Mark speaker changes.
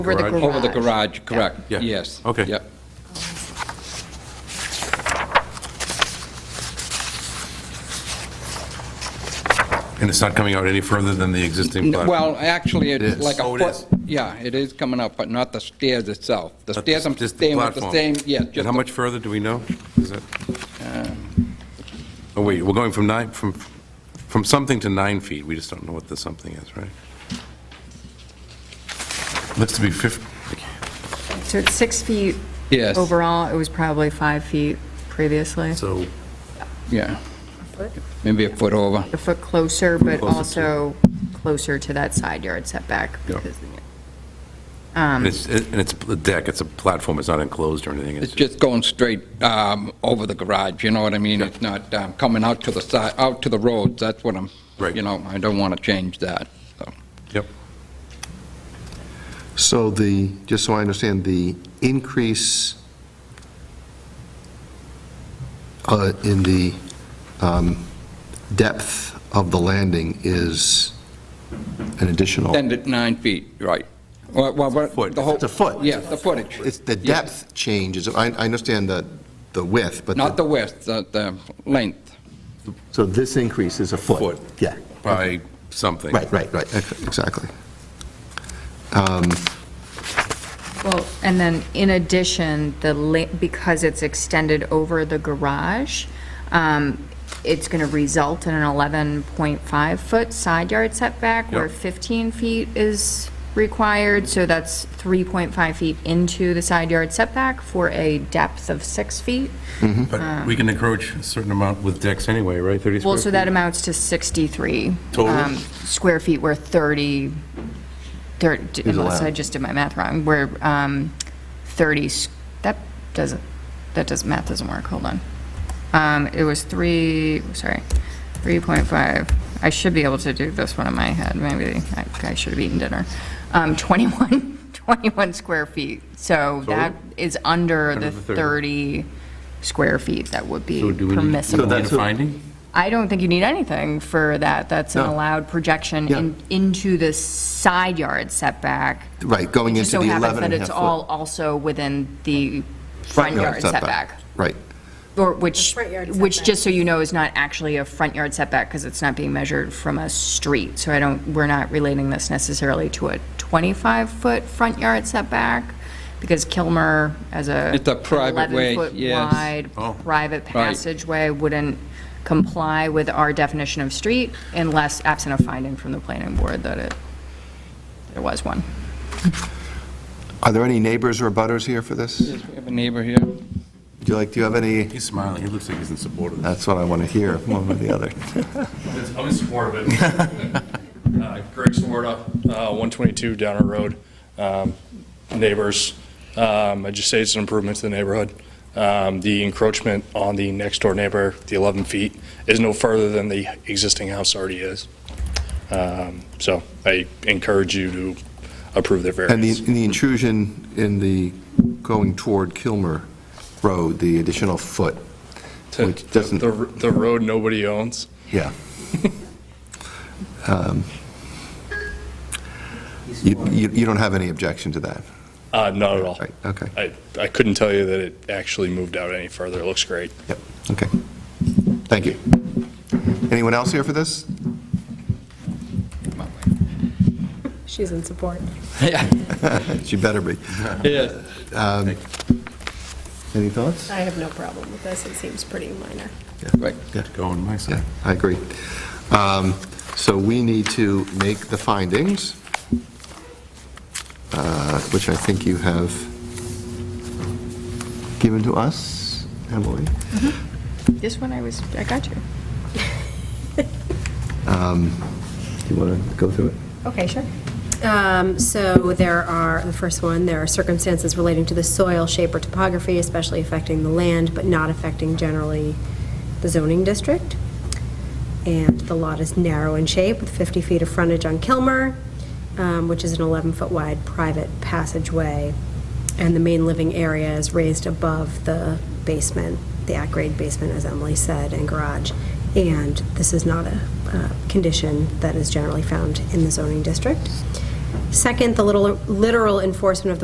Speaker 1: Over the
Speaker 2: Garage?
Speaker 1: garage.
Speaker 2: Over
Speaker 3: Over the garage, correct,
Speaker 2: Yeah.
Speaker 3: yes.
Speaker 2: Okay.
Speaker 3: Yep.
Speaker 2: And it's not coming out any further than the existing platform?
Speaker 3: Well, actually,
Speaker 2: It
Speaker 3: it's
Speaker 2: is.
Speaker 3: like a
Speaker 2: Oh, it
Speaker 3: foot,
Speaker 2: is.
Speaker 3: yeah, it is coming up, but not the stairs itself. The
Speaker 2: Not
Speaker 3: stairs, I'm
Speaker 2: just
Speaker 3: staying with the
Speaker 2: platform.
Speaker 3: same, yeah.
Speaker 2: And
Speaker 3: just
Speaker 2: how
Speaker 3: the- Uh.
Speaker 2: much further, do we know? Is that? Oh, wait, we're going from nine, from, from something to nine feet, we just don't know what the something is, right? Looks to be 50,
Speaker 1: So it's six feet.
Speaker 3: Yes.
Speaker 1: Overall, it was probably five feet previously,
Speaker 2: so,
Speaker 3: Yeah. Maybe a foot over.
Speaker 1: a foot closer, but
Speaker 2: Closer to-
Speaker 1: also closer to that side yard setback.
Speaker 2: Yeah.
Speaker 1: because-
Speaker 2: and it's, and it's a deck, it's a platform, it's not enclosed or anything?
Speaker 3: It's just going straight um, over the garage, you know what I mean? It's not um, coming out to the side, out to the roads, that's what I'm,
Speaker 2: Right.
Speaker 3: you know, I don't want to change that, so.
Speaker 2: Yep.
Speaker 4: So the, just so I understand, the increase uh, in the um, depth of the landing is an additional,
Speaker 3: Extend it nine feet, right. Well, well, but
Speaker 2: Oh. foot.
Speaker 3: the whole-
Speaker 4: It's a foot.
Speaker 3: Yeah, the footage.
Speaker 4: it's the
Speaker 3: Yeah.
Speaker 4: depth changes, I, I understand the, the width, but.
Speaker 3: Not the width, the- the length.
Speaker 4: So this increase is a foot?
Speaker 2: Foot.
Speaker 4: Yeah,
Speaker 2: By something?
Speaker 4: right, right, right, ex- exactly.
Speaker 1: Well, and then in addition, the, la- because it's extended over the garage, um, it's going to result in an 11.5-foot side yard setback where
Speaker 2: Yep.
Speaker 1: 15 feet is required, so that's 3.5 feet into the side yard setback for a depth of six feet.
Speaker 2: But we can encroach a certain amount with decks anyway, right? 30 square
Speaker 1: Well, so that
Speaker 2: feet?
Speaker 1: amounts to 63.
Speaker 2: Total?
Speaker 1: um, Square feet where 30, 30, unless I
Speaker 4: allowed.
Speaker 1: just did my math wrong, where um, 30, s- that doesn't, that does, math doesn't work, hold on. Um, It was 3, sorry, 3.5, I should be able to do this one in my head, maybe I- I should have eaten dinner. Um, 21, 21 square feet, so that is under
Speaker 2: Under
Speaker 1: the
Speaker 2: the 30.
Speaker 1: 30 square feet that would be
Speaker 2: So do we need-
Speaker 1: permissible.
Speaker 2: Do we need a finding?
Speaker 1: I don't think you need anything for that. That's an
Speaker 4: No.
Speaker 1: allowed projection in- into the side yard setback.
Speaker 4: Right, going
Speaker 1: It just
Speaker 4: into
Speaker 1: so
Speaker 4: the
Speaker 1: happens
Speaker 4: 11 and a
Speaker 1: That it's
Speaker 4: half
Speaker 1: all
Speaker 4: foot.
Speaker 1: also within the front yard setback.
Speaker 4: Right,
Speaker 1: Or which,
Speaker 5: front yard
Speaker 1: which,
Speaker 5: setback.
Speaker 1: just so you know, is not actually a front yard setback because it's not being measured from a street. So I don't, we're not relating this necessarily to a 25-foot front yard setback because Kilmer as a.
Speaker 3: It's a private way,
Speaker 1: 11-foot
Speaker 3: yes.
Speaker 1: wide
Speaker 2: Oh.
Speaker 1: private passageway wouldn't comply with our definition of street unless absent a finding from the planning board that it, there was one.
Speaker 4: are there any neighbors or butters here for this? Do
Speaker 3: We have a neighbor here.
Speaker 4: you like, do you have any,
Speaker 2: He's smiling, he looks like he's in support of this.
Speaker 4: that's what I want to hear, one or the other.
Speaker 6: It's- I'm in support of it. Uh, Greg Swarta, uh, 122 Downer Road, um, neighbors. Um, I just say it's an improvement to the neighborhood. Um, The encroachment on the next-door neighbor, the 11 feet, is no further than the existing house already is. Um, So I encourage you to approve their
Speaker 4: And the
Speaker 6: variance.
Speaker 4: and the intrusion in the, going toward Kilmer Road, the additional foot, which doesn't,
Speaker 6: The r- the road nobody owns.
Speaker 4: yeah. Um, You you you don't have any objection to that?
Speaker 6: Uh, Not at all.
Speaker 4: Right, okay.
Speaker 6: I I couldn't tell you that it actually moved out any further. It looks great.
Speaker 4: Yep, okay. Thank you. Anyone else here for this?
Speaker 5: She's in support.
Speaker 4: She better be. Um,
Speaker 3: Yes.
Speaker 4: Any thoughts?
Speaker 5: I have no problem with this, it seems pretty minor.
Speaker 3: Right.
Speaker 2: Go on my side.
Speaker 4: Yeah, I agree. Um, So we need to make the findings, uh, which I think you have given to us, Emily.
Speaker 1: This one I was, I got you.
Speaker 4: Do you want to go through it?
Speaker 1: Okay, sure.
Speaker 5: Um, So there are, the first one, there are circumstances relating to the soil, shape, or topography, especially affecting the land, but not affecting generally the zoning district. And the lot is narrow in shape with 50 feet of frontage on Kilmer, um, which is an 11-foot wide private passageway. And the main living area is raised above the basement, the at-grade basement, as Emily said, and garage. And this is not a uh, condition that is generally found in the zoning district. Second, the little- literal enforcement of the